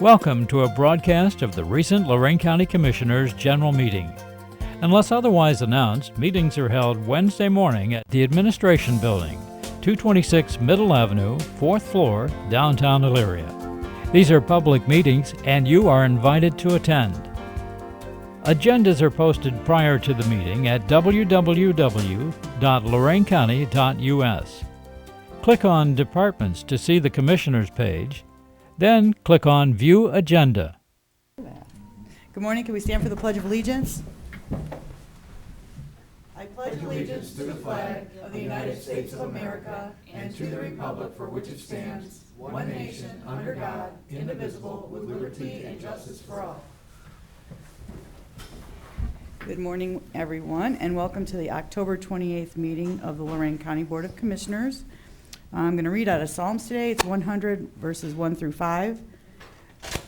Welcome to a broadcast of the recent Lorraine County Commissioners' General Meeting. Unless otherwise announced, meetings are held Wednesday morning at the Administration Building, 226 Middle Avenue, 4th floor, downtown Elyria. These are public meetings and you are invited to attend. Agendas are posted prior to the meeting at www.loraincounty.us. Click on Departments to see the Commissioners page, then click on View Agenda. Good morning, can we stand for the Pledge of Allegiance? I pledge allegiance to the flag of the United States of America and to the republic for which it stands, one nation, under God, indivisible, with liberty and justice for all. Good morning, everyone, and welcome to the October 28th meeting of the Lorraine County Board of Commissioners. I'm going to read out of Psalms today, it's 100 verses 1 through 5.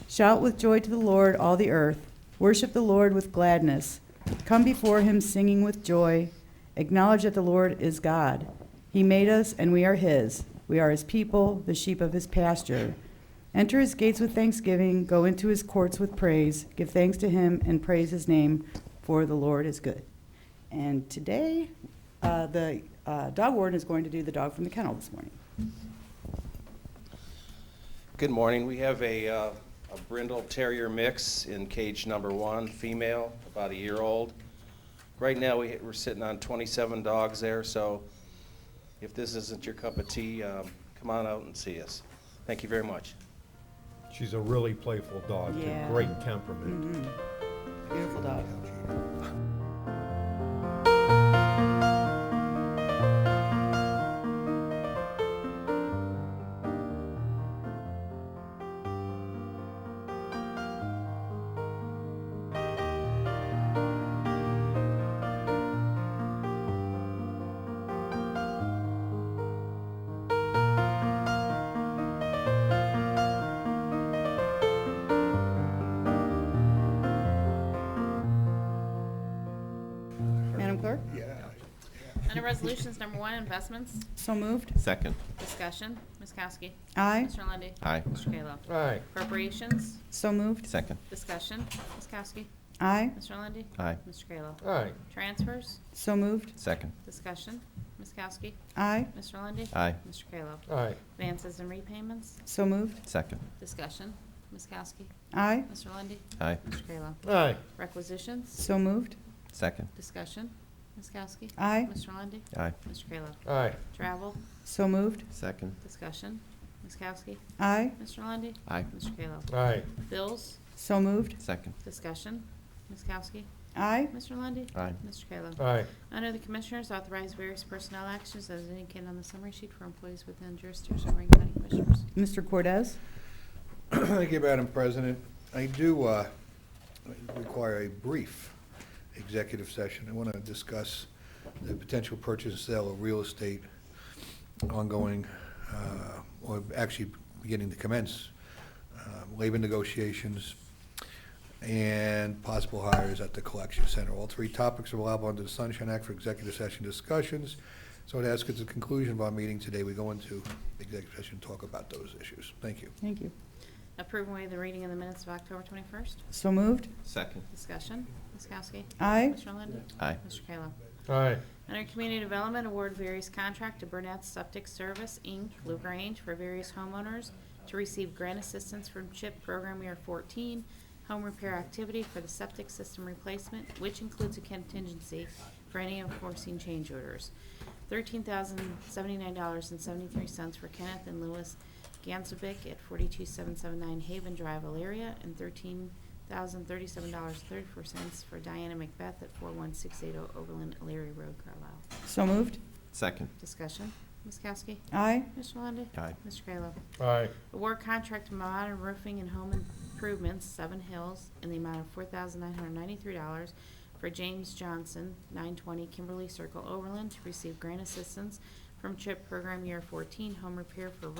Shout with joy to the Lord, all the earth. Worship the Lord with gladness. Come before him singing with joy. Acknowledge that the Lord is God. He made us, and we are his. We are his people, the sheep of his pasture. Enter his gates with thanksgiving, go into his courts with praise. Give thanks to him and praise his name, for the Lord is good. And today, uh, the uh, dog warden is going to do the dog from the kennel this morning. Good morning. We have a, uh, a Brindle Terrier mix in cage number one, female, about a year old. Right now, we, we're sitting on 27 dogs there, so if this isn't your cup of tea, um, come on out and see us. Thank you very much. She's a really playful dog, too. Yeah. great temperament. Beautiful dog. Madam Clerk? Under Resolutions Number One, Investments, So moved. Second. Discussion, Ms. Kowski. Aye. Mr. Lundy, Aye. Mr. Kayla. Aye. Appropriations, So moved. Second. Discussion, Ms. Kowski. Aye. Mr. Lundy, Aye. Mr. Kayla. Aye. Transfers, So moved. Second. Discussion, Ms. Kowski. Aye. Mr. Lundy, Aye. Mr. Kayla. Aye. Advances and repayments, So moved. Second. Discussion, Ms. Kowski. Aye. Mr. Lundy, Aye. Mr. Kayla. Aye. Requisitions, So moved. Second. Discussion, Ms. Kowski. Aye. Mr. Lundy, Aye. Mr. Kayla. Aye. Travel, So moved. Second. Discussion, Ms. Kowski. Aye. Mr. Lundy, Aye. Mr. Kayla. Aye. Bills, So moved. Second. Discussion, Ms. Kowski. Aye. Mr. Lundy, Aye. Mr. Kayla. Aye. Under the Commissioners, authorize various personnel actions as indicated on the summary sheet for employees within jurisdiction of Lorraine County Commissioners. Mr. Cordez? Thank you, Madam President. I do uh, require a brief executive session. I want to discuss the potential purchase and sale of real estate ongoing, uh, or actually beginning to commence, uh, labor negotiations, and possible hires at the collection center. All three topics are allowable under the Sunshine Act for executive session discussions. So I'd ask at the conclusion of our meeting today, we go into executive session and talk about those issues. Thank you. Thank you. Approve and waive the reading of the minutes of October 21st. So moved. Second. Discussion, Ms. Kowski. Aye. Mr. Lundy, Aye. Mr. Kayla. Aye. Under Community Development, award various contract to Burnett Septic Service, Inc., LaGrange, for various homeowners to receive grant assistance from CHIP Program Year 14, home repair activity for the septic system replacement, which includes a contingency for any unforeseen change orders. $13,079.73 for Kenneth and Louis Gansovic at 42779 Haven Drive, Elyria, and $13,037.34 for Diana Macbeth at 41680 Overland, Elyria Road, Carlisle. So moved. Second. Discussion, Ms. Kowski. Aye. Mr. Lundey. Aye. Mr. Kayla. Aye. Award contract to Modern Roofing and Home Improvements, Seven Hills, in the amount of four thousand nine hundred ninety-three dollars for James Johnson, nine twenty Kimberly Circle, Overland, to receive grant assistance from CHIP Program Year fourteen, home repair for roof